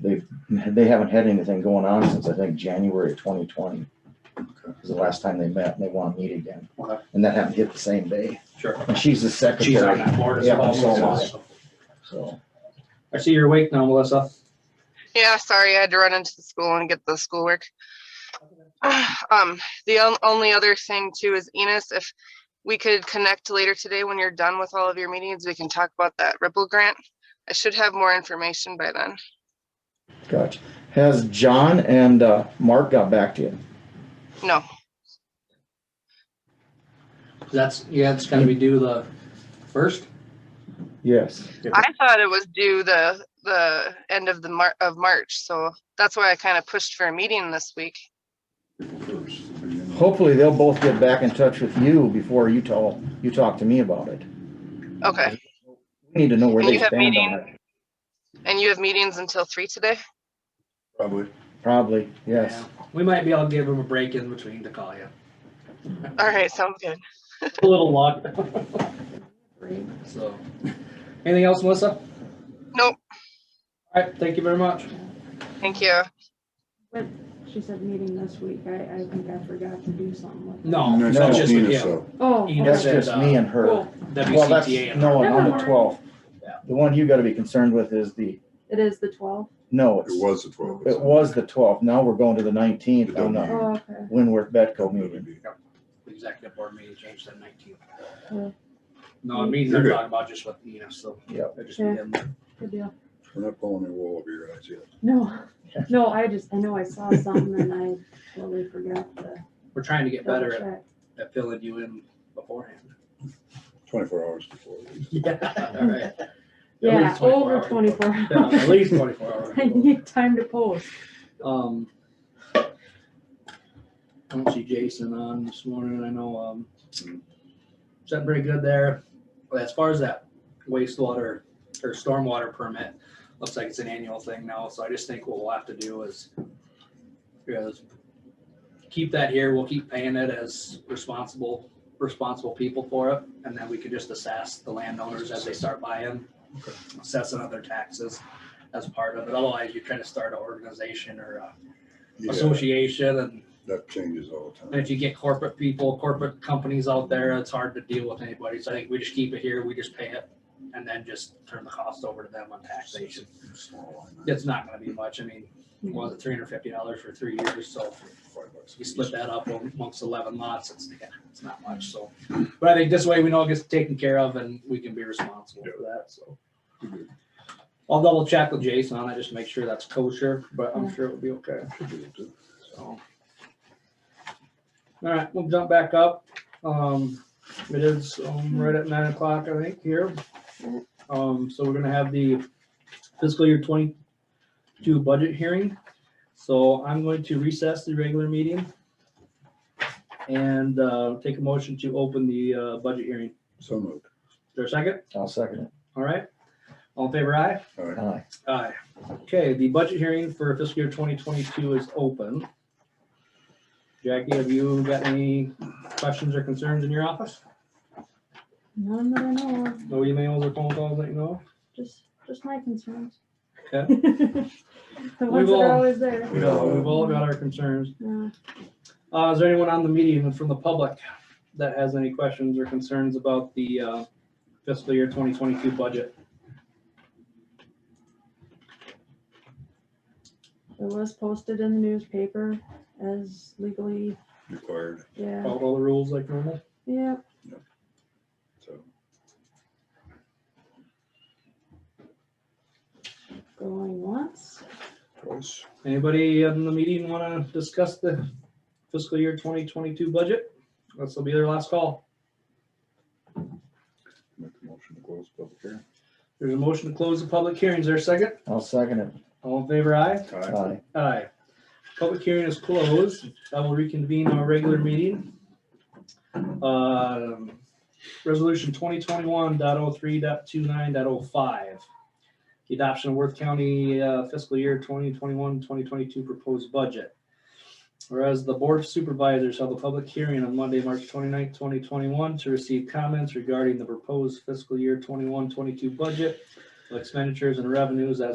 they've, they haven't had anything going on since, I think, January of twenty twenty. Was the last time they met, and they wanna meet again, Okay. and that happened hit the same day, Sure. and she's the She's on secretary, that board as Yeah, well. so am so- so. I see you're awake now, Melissa. Yeah, sorry, I had to run into the school and get the schoolwork. Um, the on- only other thing too is Enos, if we could connect later today when you're done with all of your meetings, we can talk about that Ripple grant. I should have more information by then. Gotcha. Has John and, uh, Mark got back to you? No, That's, yeah, it's gonna be due the first. Yes. I thought it was due the, the end of the Mar- of March, so that's why I kind of pushed for a meeting this week. Hopefully, they'll both get back in touch with you before you tell, you talk to me about it. Okay, We need to know where And they you have stand on meeting- it. and you have meetings until three today? Probably. Probably, yes. Yeah. We might be able to give him a break in between to call you. All right, sounds good. A little luck. So, anything else, Melissa? Nope. All right, thank you very much. Thank you. She said meeting this week. I, I think I forgot to do something with. No, No, it's no, Oh, just with Nina, you. so, Oh. You That's okay. said, just me uh, and her. Cool. Well, that's, WCTA and no, Never on the mind. twelfth. Yeah. The one you gotta be concerned with is the, It is the twelfth. no, It it's, was the twelve. it was the twelfth. Now we're going to the nineteenth The on the W. Oh, okay. Winworth Betco meeting. the executive board meeting changed to nineteen. Yeah. No, I mean, You're they're good. talking about just with Nina, so. Yep. I just Yeah. need him. Good deal. We're not pulling their wool over your eyes yet. No, no, I just, I know I saw something and I totally forgot to We're trying to get double better at- check. at filling you in beforehand. Twenty-four hours before. at least. All right. At Yeah, least 24 over hours. twenty-four Yeah, At hours. least twenty-four hours. I need time to post. Um, I don't see Jason on this morning, I know, um, something pretty good there. But as far as that wastewater or stormwater permit, looks like it's an annual thing now, so I just think what we'll have to do is, is keep that here, we'll keep paying it as responsible, responsible people for it, and then we can just assess the landowners as they start buying, assessing other taxes as part of it, otherwise you're trying to start an organization or uh, a Oh, Yeah, association and that changes all the and time. if you get corporate people, corporate companies out there, it's hard to deal with anybody. So I think we just keep it here, we just pay it and then just turn the cost over to them on taxation. Small line item. It's not gonna be much. I mean, what was it three hundred fifty dollars for three years? So Five bucks. you split that up amongst eleven lots, it's, yeah, it's not much, so. But I think this way we know it gets taken care of and we can be responsible for that, so. I'll double check with Jason on that, just to make sure that's kosher, but I'm sure it'll be okay. So. All right, we'll jump back up. Um, it is um right at nine o'clock, I think, here. Um, so we're gonna have the fiscal year twenty-two budget hearing. So I'm going to recess the regular meeting and uh, take a motion to open the uh, budget hearing. Is So moved. there a second? I'll second All right. All in favor, aye? All it. right. Aye. Aye. Okay, the budget hearing for fiscal year twenty twenty-two is open. Jackie, have you got any questions or concerns in your office? None that I know of, No emails or phone calls that you know? just, just my concerns. Okay. The ones that will- are always there. We of? all- We've all got our concerns. Yeah. Uh, is there anyone on the meeting from the public that has any questions or concerns about the, uh, fiscal year twenty twenty-two budget? It was posted in the newspaper as legally, Required, yeah, Follow all the rules like normal? yeah. so. Going once, Twice. Anybody in the meeting want to discuss the fiscal year twenty twenty-two budget? This will be their last call. Make a motion to close public hearing. There's a motion to close the public hearing. Is there a second? I'll second it. All in favor, aye? Aye. Aye. Aye. Public hearing is closed. I will reconvene our regular meeting. Um, Resolution 2021.03.29.05, The adoption of Worth County uh, fiscal year 2021, 2022 proposed budget. Whereas the Board of Supervisors held a public hearing on Monday, March 29, twenty-one, to receive comments regarding the proposed fiscal year 21-22 budget, expenditures and revenues as